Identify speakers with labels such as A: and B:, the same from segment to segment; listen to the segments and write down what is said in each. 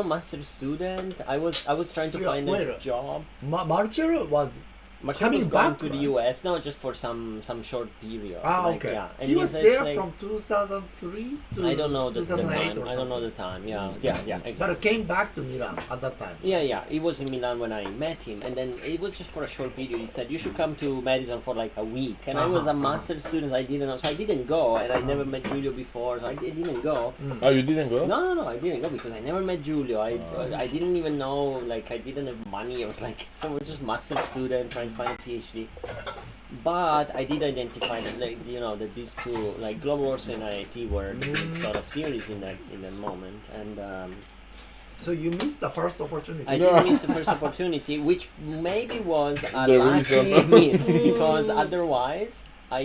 A: I'm a master student. I was I was trying to
B: Yeah,
A: find a
B: where?
A: job.
B: Ma- Marcel was uh,
A: My
B: Coming
A: was going
B: back,
A: to the
B: right?
A: US, no, just for some some short period.
B: ah
A: like,
B: okay.
A: Yeah, and
B: he was
A: it's- it's
B: there
A: like-
B: from 2003 to
A: I don't know the, the
B: 2008
A: time.
B: or
A: I don't know
B: something.
A: the time. Yeah, yeah, yeah, exactly.
B: But came back to Milan at that time.
A: Yeah, yeah. He was in Milan when I met him, and then it was just for a short period. He said you should come to Madison for like a week, and I was a
B: Uh-huh, uh-huh.
A: master's student. I didn't, know, so I didn't go, and I never met Julio before, so I di- didn't go.
B: Mm.
C: Oh, you didn't go?
A: No, no, no, I didn't go because I never met Julio. I, I didn't even know, like, I didn't have money. I was like, so I was just master's student trying to find a PhD. But I did identify that, like, you know, that these two, like, global warfare and IIT were like, sort of theories in that in that moment, and um,
B: So you missed the first opportunity.
A: I
C: No.
A: did miss the first opportunity, which maybe was a
C: The
A: lucky
C: reason.
A: miss because otherwise I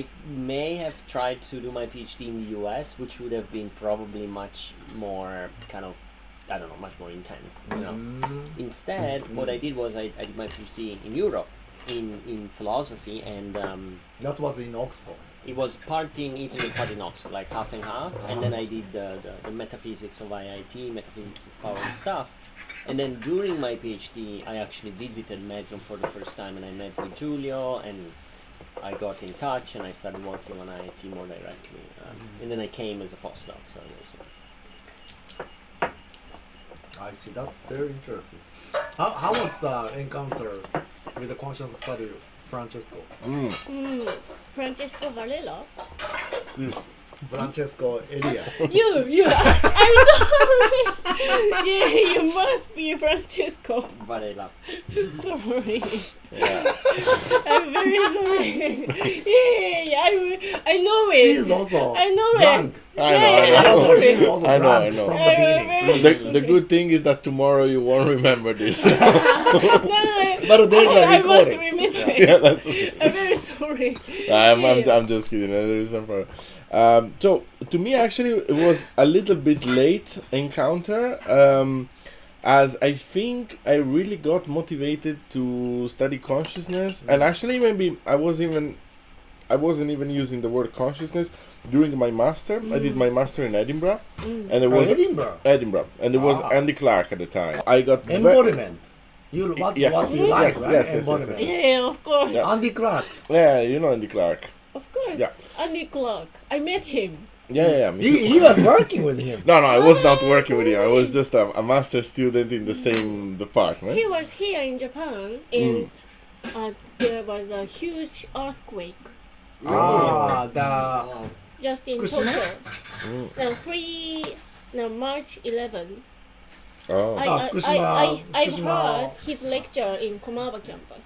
A: may have tried to do my PhD in the US, which would have been probably much more kind of I don't know, much more intense. You
C: Mm-hmm.
A: know.
B: Mm-hmm.
A: Instead, what I did was I, I did my PhD in Europe in in philosophy and. Um,
B: That was in Oxford.
A: it was part in Italy, part in Oxford, like half and half. And then I did the, the, the metaphysics of IIT, metaphysics of power and stuff. And then during my PhD, I actually visited Madison for the first time, and I met with Giulio, and I got in touch, and I started working on IIT more directly. Um, And then I came as a postdoc. So it was,
B: I see. That's very interesting. How, how was the encounter with the conscious study, Francesco?
D: Mm, Francesco Varela.
B: Francesco Elia.
D: You, you. I'm sorry. yeah, you must be Francesco.
A: but I love.
D: Sorry.
C: Yeah.
D: I'm very sorry. yeah, yeah, yeah. I, I know it.
B: she is also
D: I know
B: drunk.
D: it.
C: I know, I know.
D: Yeah, yeah, yeah, sorry.
B: She is also
C: I know, I
B: drunk
C: know.
B: From the
D: I'm
B: beginning.
D: very
C: The, the
D: sorry.
C: good thing is that tomorrow you won't remember this.
D: No, no, no.
B: But there's a
D: I, I must
B: recording.
D: remember.
C: yeah, that's.
D: I'm very sorry.
C: I'm, I'm, I'm just kidding. That's the reason for. Um, so to me, actually, it was a little bit late encounter. Um, as I think I really got motivated to study
D: Mm-hmm.
C: consciousness, and actually, maybe I was even, I wasn't even using the word consciousness during my master. I
D: Mm.
C: did my master in Edinburgh, and there
D: Oh,
C: was
B: Edinburgh.
C: Edinburgh, and there was
B: Ah.
C: Andy Clark at the time. I got ve-
B: Embodiment. You what,
C: Yes,
B: what you
C: yes,
B: like,
C: yes,
B: right?
C: yes, yes,
B: Embodiment.
C: yes,
D: Yeah, of course.
C: Yeah.
B: Andy Clark.
C: yeah, you know Andy Clark.
D: Of course.
C: Yeah.
D: Andy Clark. I met him.
C: Yeah, yeah, yeah. me too.
B: He, he was working with him.
C: No, no, I was not working with you. I was just a, a master student in the same department.
D: He was here in Japan
C: Mm.
D: and uh, there was a huge earthquake
B: Ah, the
A: Oh.
D: just in
B: Fukushima?
D: Tokyo. No, three, no, March 11.
C: Oh,
D: I,
B: Ah,
D: I, I,
B: Fukushima-
D: I, I've
B: Fukushima.
D: heard his lecture in Komawa campus.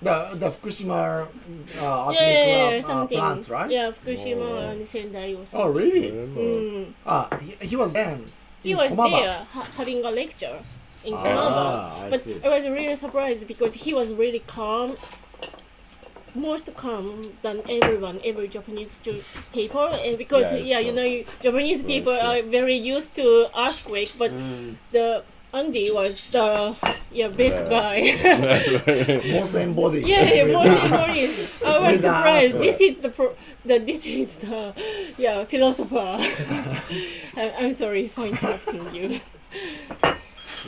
B: the the Fukushima uh,
D: Yeah, yeah,
B: atomic
D: yeah, or
B: uh, uh,
D: something.
B: plants, right?
D: Yeah, Fukushima and Sendai or something.
B: Oh,
C: I
B: really?
C: don't know.
D: Mm.
B: Ah, he, he was then.
D: He
B: in
D: was
B: Komaba.
D: there ha- having a lecture in
B: Ah,
D: Komawa.
B: I
D: but
B: see.
D: I was really surprised because he was really calm, most calm than everyone, every Japanese stu- people. And because
C: Yeah,
D: yeah,
C: it's
D: you
C: so-
D: know, you- Japanese people
C: true.
D: are very used to earthquake, but
A: Mm.
D: the Andy was the yeah best
C: Yeah.
D: guy.
C: That's right.
B: Most embodied.
D: yeah, yeah, most employees. I was
B: With the
D: surprised.
B: earthquake.
D: This is the pro- the this is the yeah philosopher. I- I'm sorry for interrupting you.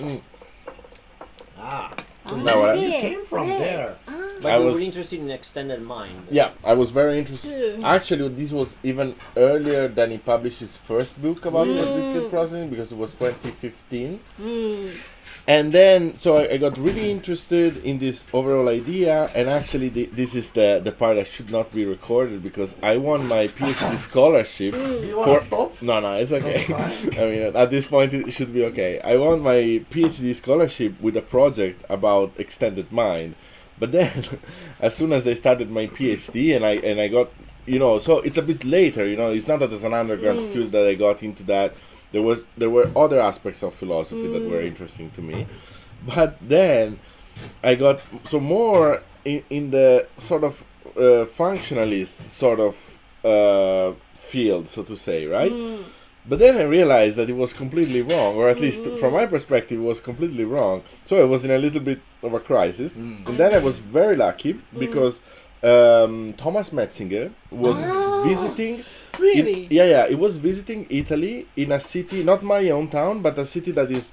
B: Ah,
C: No, I-
B: he came from
D: Right.
B: there.
A: But
C: I
A: we
C: was-
A: were interested in extended mind.
C: Yeah, I was very interested.
D: True.
C: Actually, this was even earlier than he published his first book about predictive processing because it was 2015. And then, so I, I got really interested in this overall idea, and actually, the, this is the, the part that should not be recorded because I won my PhD scholarship
B: Do you want
C: For-
B: to stop?
C: No, no, it's okay. I mean, at this point, it should be okay. I won my PhD scholarship with a project about extended mind, but then, as soon as I started my PhD and I and I got, you know, so it's a bit later. You know, it's not that as an undergrad student that I got into that. There was there were other aspects of philosophy that were interesting to me, but then I got so more in, in the sort of uh, functionalist sort of uh, field, so to say, right? But then I realized that it was completely wrong, or at least
D: Mm.
C: from my perspective, it was completely wrong. So I was in a little bit of a crisis, and then I was very lucky
D: Mm.
C: because um, Thomas Metzinger was
D: Ah.
C: visiting
D: Really?
C: it- yeah, yeah. It was visiting Italy in a city, not my own town, but a city that is